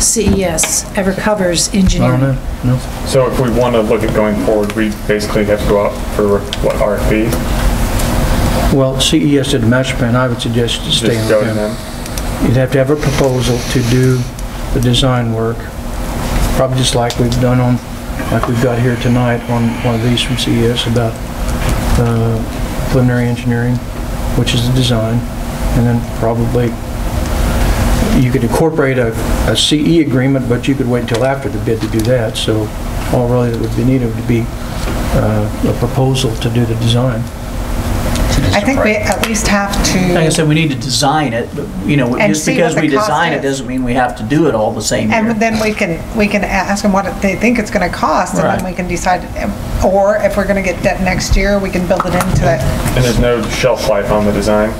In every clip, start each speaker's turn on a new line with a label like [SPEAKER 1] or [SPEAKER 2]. [SPEAKER 1] CES E ever covers engineering.
[SPEAKER 2] no.
[SPEAKER 3] So if we want to look at going forward, we basically have to go out for what RFP?
[SPEAKER 2] Well, CES did the master plan, I would suggest you stay
[SPEAKER 3] Just
[SPEAKER 2] on
[SPEAKER 3] go to
[SPEAKER 2] them.
[SPEAKER 3] them.
[SPEAKER 2] You'd have to have a proposal to do the design work, probably just like we've done on, like we've got here tonight on one of these from CES about uh, preliminary engineering, which is the design, and then probably, you could incorporate a, a CE agreement, but you could wait until after the bid to do that, so all really that would be needed would be uh, a proposal to do the design.
[SPEAKER 4] I think we at least have
[SPEAKER 5] Like I
[SPEAKER 4] to,
[SPEAKER 5] said, we need to design it, but, you know,
[SPEAKER 4] And
[SPEAKER 5] just
[SPEAKER 4] see
[SPEAKER 5] because
[SPEAKER 4] what
[SPEAKER 5] we
[SPEAKER 4] the cost
[SPEAKER 5] design it
[SPEAKER 4] is.
[SPEAKER 5] doesn't mean we have to do it all the same
[SPEAKER 4] and
[SPEAKER 5] year.
[SPEAKER 4] then we can, we can a- ask them what they think it's going to cost, and
[SPEAKER 5] Right.
[SPEAKER 4] then we can decide, or if we're going to get debt next year, we can build it into that.
[SPEAKER 3] And there's no shelf life on the design?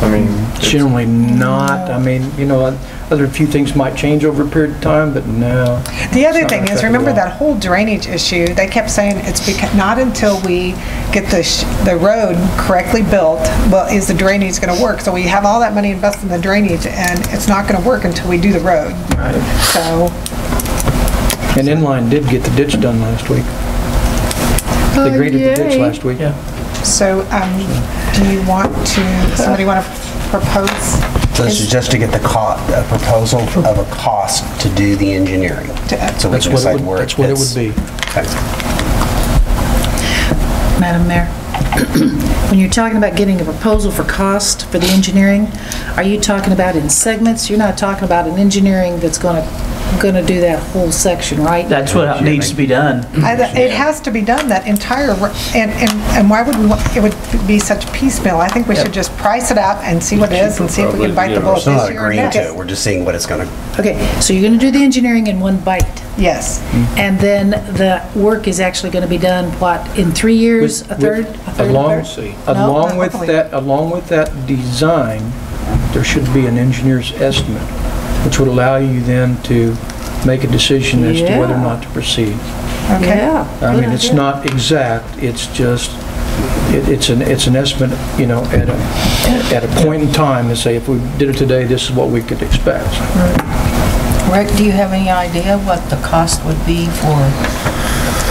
[SPEAKER 3] I mean, it's-
[SPEAKER 2] Generally not, I mean, you know, other few things might change over a period of time, but no.
[SPEAKER 4] The other
[SPEAKER 2] It's not
[SPEAKER 4] thing is,
[SPEAKER 2] affected
[SPEAKER 4] remember
[SPEAKER 2] at all.
[SPEAKER 4] that whole drainage issue? They kept saying it's becau- not until we get the, sh- the road correctly built, well, is the drainage going to work? So we have all that money invested in the drainage, and it's not going to work until we do the road. So,
[SPEAKER 2] And Inline did get the ditch done last week. They
[SPEAKER 1] Oh,
[SPEAKER 2] graded the ditch last week.
[SPEAKER 4] so um, do you want to, somebody want to propose?
[SPEAKER 6] So this is just to get the co, a proposal of a cost to do the engineering.
[SPEAKER 4] To-
[SPEAKER 6] So
[SPEAKER 2] That's
[SPEAKER 6] we can
[SPEAKER 2] what it
[SPEAKER 6] decide
[SPEAKER 2] would,
[SPEAKER 6] where it
[SPEAKER 2] that's what it would
[SPEAKER 6] fits.
[SPEAKER 2] be.
[SPEAKER 6] Okay.
[SPEAKER 1] Madam Mayor, when you're talking about getting a proposal for cost for the engineering, are you talking about in segments? You're not talking about an engineering that's going to, going to do that whole section, right?
[SPEAKER 5] That's what needs to be done.
[SPEAKER 4] I- It has to be done, that entire, ro- and, and and why would we, want- it would be such piecemeal? I think we should just price it out and see what it is and see if we can bite the
[SPEAKER 6] We're
[SPEAKER 4] bullet
[SPEAKER 6] still
[SPEAKER 4] this
[SPEAKER 6] not
[SPEAKER 4] year or
[SPEAKER 6] agreeing
[SPEAKER 4] next.
[SPEAKER 6] to it, we're just seeing what it's gonna,
[SPEAKER 1] Okay, so you're going to do the engineering in one bite,
[SPEAKER 4] Yes,
[SPEAKER 2] Mm-hmm.
[SPEAKER 1] and then the work is actually going to be done, what, in three years, a third? a third, a
[SPEAKER 2] Along,
[SPEAKER 1] third? No?
[SPEAKER 2] along with
[SPEAKER 4] hopefully.
[SPEAKER 2] that, along with that design, there should be an engineer's estimate, which would allow you then to make a decision as to whether or
[SPEAKER 1] Yeah.
[SPEAKER 2] not to proceed.
[SPEAKER 4] okay.
[SPEAKER 1] Yeah.
[SPEAKER 2] I
[SPEAKER 1] good
[SPEAKER 2] mean, it's
[SPEAKER 1] idea.
[SPEAKER 2] not exact, it's just, it- it's an, it's an estimate, you know, at a, at a point in time, to say, if we did it today, this is what we could expect.
[SPEAKER 7] Rick, do you have any idea what the cost would be for the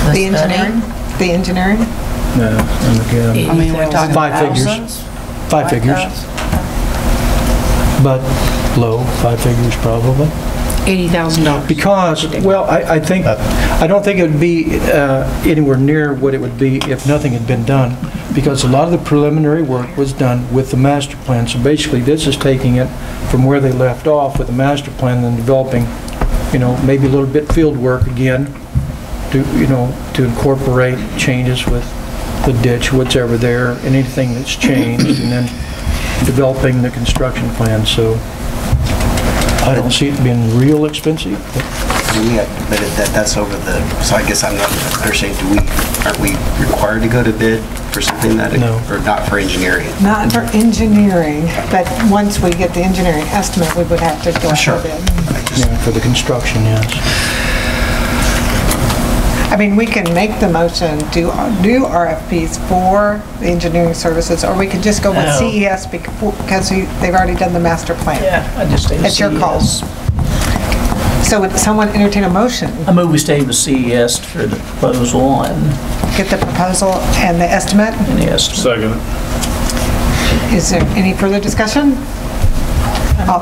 [SPEAKER 4] The
[SPEAKER 7] study?
[SPEAKER 4] engineering, the engineering?
[SPEAKER 2] No, and again,
[SPEAKER 7] I mean, we're talking
[SPEAKER 2] Five figures.
[SPEAKER 7] thousands?
[SPEAKER 2] Five figures,
[SPEAKER 7] thous-
[SPEAKER 2] but low, five figures probably.
[SPEAKER 1] $80,000.
[SPEAKER 2] Because, well, I, I think, I don't think it would be uh, anywhere near what it would be if nothing had been done, because a lot of the preliminary work was done with the master plan. So basically, this is taking it from where they left off with the master plan and developing, you know, maybe a little bit field work again to, you know, to incorporate changes with the ditch, what's ever there, and anything that's changed, and then developing the construction plan. So I don't see it being real expensive.
[SPEAKER 6] do we, but it- that, that's over the, so I guess I'm not understanding, do we, aren't we required to go to bid for something that?
[SPEAKER 2] No.
[SPEAKER 6] Or not for engineering?
[SPEAKER 4] Not for engineering, but once we get the engineering estimate, we would have to go
[SPEAKER 6] Sure.
[SPEAKER 4] out for bid.
[SPEAKER 2] Yeah, for the construction, yes.
[SPEAKER 4] I mean, we can make the motion, do, do RFPs for the engineering services, or we can just go with E
[SPEAKER 5] No.
[SPEAKER 4] CES becau- because we- they've already done the master plan.
[SPEAKER 5] Yeah, I just. E
[SPEAKER 4] It's your call. So would someone entertain a motion?
[SPEAKER 5] I move we stay with CES for the proposal and
[SPEAKER 4] Get the proposal and the estimate?
[SPEAKER 5] and the estimate.
[SPEAKER 3] Second.
[SPEAKER 4] Is there any further discussion? Oh,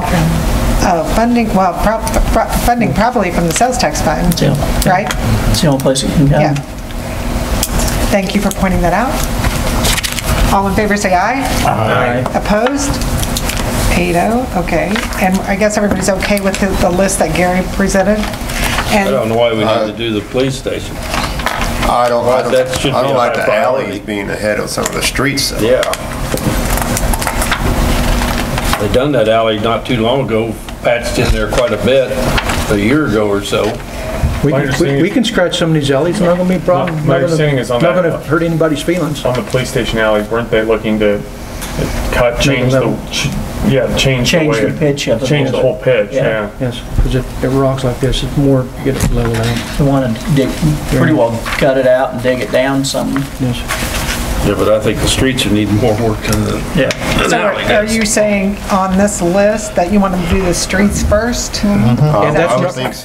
[SPEAKER 4] oh, Funding, well, prob- pro- funding probably from the sales tax fund,
[SPEAKER 5] Yeah.
[SPEAKER 4] right?
[SPEAKER 5] It's the only place it can
[SPEAKER 4] Yeah.
[SPEAKER 5] go.
[SPEAKER 4] Thank you for pointing that out. All in favor, say aye.
[SPEAKER 5] Aye.
[SPEAKER 4] Opposed? Eight oh, okay. And I guess everybody's okay with the- the list that Gary presented?
[SPEAKER 8] I
[SPEAKER 4] And
[SPEAKER 8] don't know why we had to do the police station.
[SPEAKER 9] I don't, I don't,
[SPEAKER 8] That should
[SPEAKER 9] I
[SPEAKER 8] be
[SPEAKER 9] don't
[SPEAKER 8] a
[SPEAKER 9] like the
[SPEAKER 8] high priority.
[SPEAKER 9] alleys being ahead of some of the streets. though.
[SPEAKER 8] Yeah. They done that alley not too long ago, patched in there quite a bit, a year ago or so.
[SPEAKER 2] We
[SPEAKER 3] My
[SPEAKER 2] can-
[SPEAKER 3] understanding-
[SPEAKER 2] we can scratch some of these alleys, not gonna be a problem.
[SPEAKER 3] My- my understanding is on
[SPEAKER 2] Not
[SPEAKER 3] that-
[SPEAKER 2] gonna hurt anybody's feelings.
[SPEAKER 3] On the police station alley, weren't they looking to cut, change the,
[SPEAKER 2] level.
[SPEAKER 3] ch- yeah, change the way.
[SPEAKER 5] Change the pitch of it.
[SPEAKER 3] Change the whole pitch,
[SPEAKER 5] Yeah.
[SPEAKER 3] yeah.
[SPEAKER 2] Yes, because if it rocks like this, it's more, get it leveled out,
[SPEAKER 5] We want to dig, pretty well cut it out and dig it down some.
[SPEAKER 2] yes.
[SPEAKER 8] Yeah, but I think the streets would need more work than the
[SPEAKER 5] Yeah.
[SPEAKER 4] So are- are you saying on this list that you want to do the streets first?
[SPEAKER 2] And that's
[SPEAKER 9] I
[SPEAKER 2] not-
[SPEAKER 9] would think so.